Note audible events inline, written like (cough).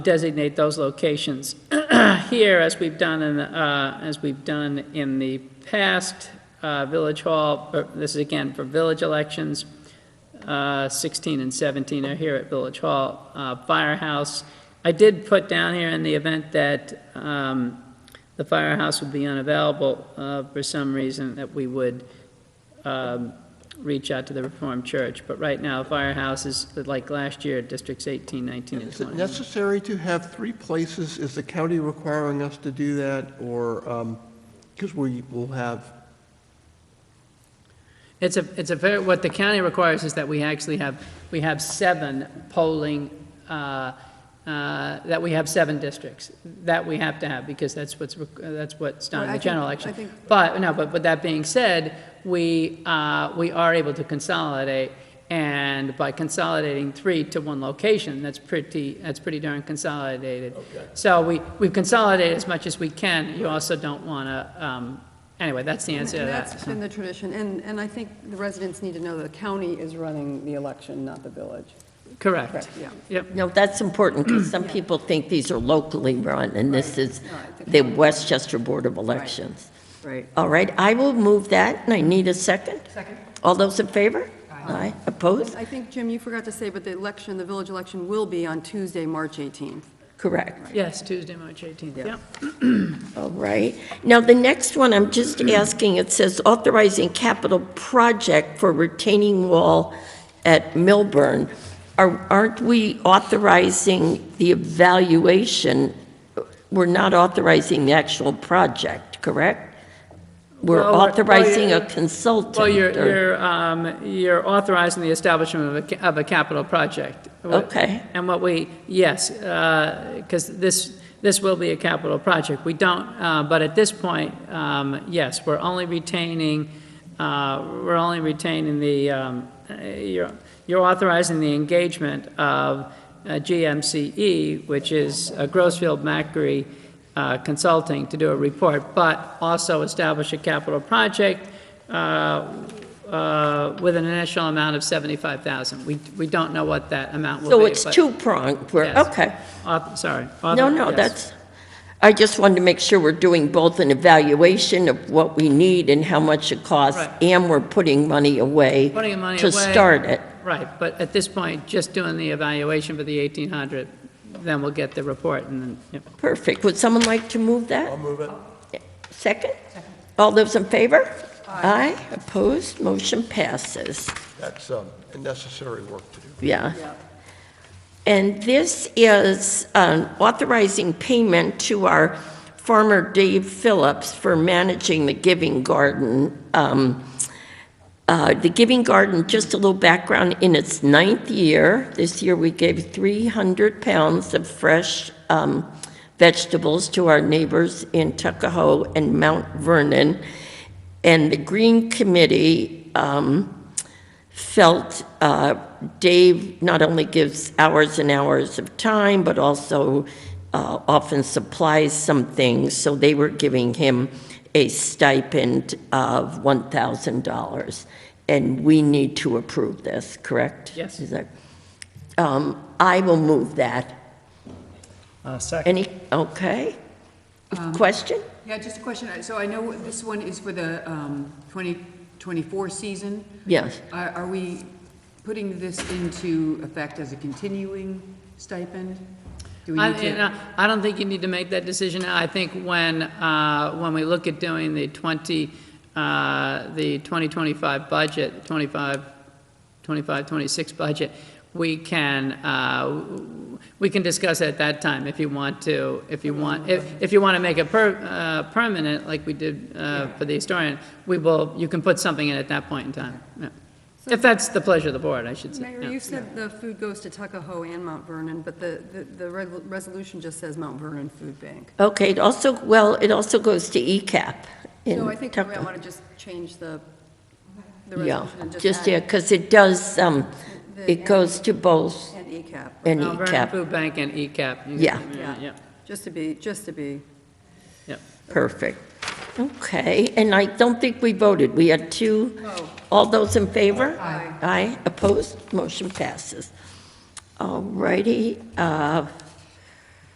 designate those locations (clears throat) here, as we've done in, the, uh, as we've done in the past, uh, Village Hall, uh, this is again for village elections, uh, 16 and 17 are here at Village Hall, uh, Firehouse. I did put down here in the event that um, the firehouse would be unavailable uh, for some reason, that we would um, reach out to the Reformed Church, but right now, Firehouse is, like last year, Districts 18, 19, and Is it 20. necessary to have three places? Is the county requiring us to do that, or, because we will have, It's a, it's a fair, what the county requires is that we actually have, we have seven polling, uh, uh, that we have seven districts. That we have to have, because that's what's, req- uh, that's what's done in Well, I the general think- I election. think- But, no, but with that being said, we, uh, we are able to consolidate, and by consolidating three to one location, that's pretty, that's pretty darn consolidated. So we, we've consolidated as much as we can. You also don't want to, um, anyway, that's the answer to And that. That's been the tradition, and, and I think the residents need to know the county is running the election, not the village. Correct. Correct, yeah. Yep. No, that's important, because some people think these are locally run, and this is No, I think- the Westchester Board of Elections. Right. All right, I will move that, and I need a second. Second. All those in favor? Aye. Opposed? I think, Jim, you forgot to say, but the election, the village election will be on Tuesday, March 18th. Correct. Yes, Tuesday, March 18th, Yeah. yep. All right. Now, the next one, I'm just asking, it says authorizing capital project for retaining wall at Milburn. Are- Aren't we authorizing the evaluation? We're not authorizing the actual project, correct? We're Well, we're- well, authorizing a you're- consultant. Well, you're, or- you're, um, you're authorizing the establishment of a, ca- of a capital project. What- Okay. And what we, yes, because this, this will be a capital project. We don't, uh, but at this point, um, yes, we're only retaining, uh, we're only retaining the, um, uh, you're you're authorizing the engagement of uh, GMCE, which is uh, Grossfield Macri uh, Consulting, to do a report, but also establish a capital project uh, uh, with an initial amount of 75,000. We, we don't know what that amount will be. So it's but- two-pronged, we're, Yes. okay. Auth- Sorry. No, author- no, yes. that's, I just wanted to make sure we're doing both an evaluation of what we need and how much it costs, Right. and we're putting money away Putting money to away. start it. Right, but at this point, just doing the evaluation for the 1,800, then we'll get the report and then, yep. Perfect. Would someone like to move I'll that? move it. Second? All those in favor? Aye. Opposed? Motion passes. That's um, a necessary work to do. Yeah. And this is um, authorizing payment to our farmer Dave Phillips for managing the Giving Garden. Um, uh, The Giving Garden, just a little background, in its ninth year, this year we gave 300 pounds of fresh um, vegetables to our neighbors in Tuckahoe and Mount Vernon. And the Green Committee um, felt uh, Dave not only gives hours and hours of time, but also uh, often supplies some things, so they were giving him a stipend of $1,000. And we need to approve this, correct? Yes. Is that- Um, I will move that. Second. Any, okay? Um, Question? Yeah, just a question. I- So I know this one is for the um, 2024 season. Yes. Are are we putting this into effect as a continuing stipend? Do we I, need and to? I- I don't think you need to make that decision now. I think when, uh, when we look at doing the 20, uh, the 2025 budget, 25, 25, 26 budget, we can, uh, we can discuss it at that time if you want to, if you want, if if you want to make it per- uh, permanent, like we did uh, for the historian, we will, you can put something in at that point in time. Yeah. If that's the pleasure of the board, I should say. Mayor, Yeah. you said the food goes to Tuckahoe and Mount Vernon, but the, the- the reg- resolution just says Mount Vernon Food Bank. Okay, it also, well, it also goes to E ECAP in So I think we Tuckahoe. might want to just change the, the Yeah, resolution and just, just yeah, add because it does, um, the it goes to E both and E ECAP, and Mount Vernon ECAP. Food Bank and ECAP. You- Yeah. Yeah. just to be, just to be. Perfect. Okay, and I don't think we voted. We had two. No. All those in favor? Aye. Aye, opposed? Motion passes. All righty, uh,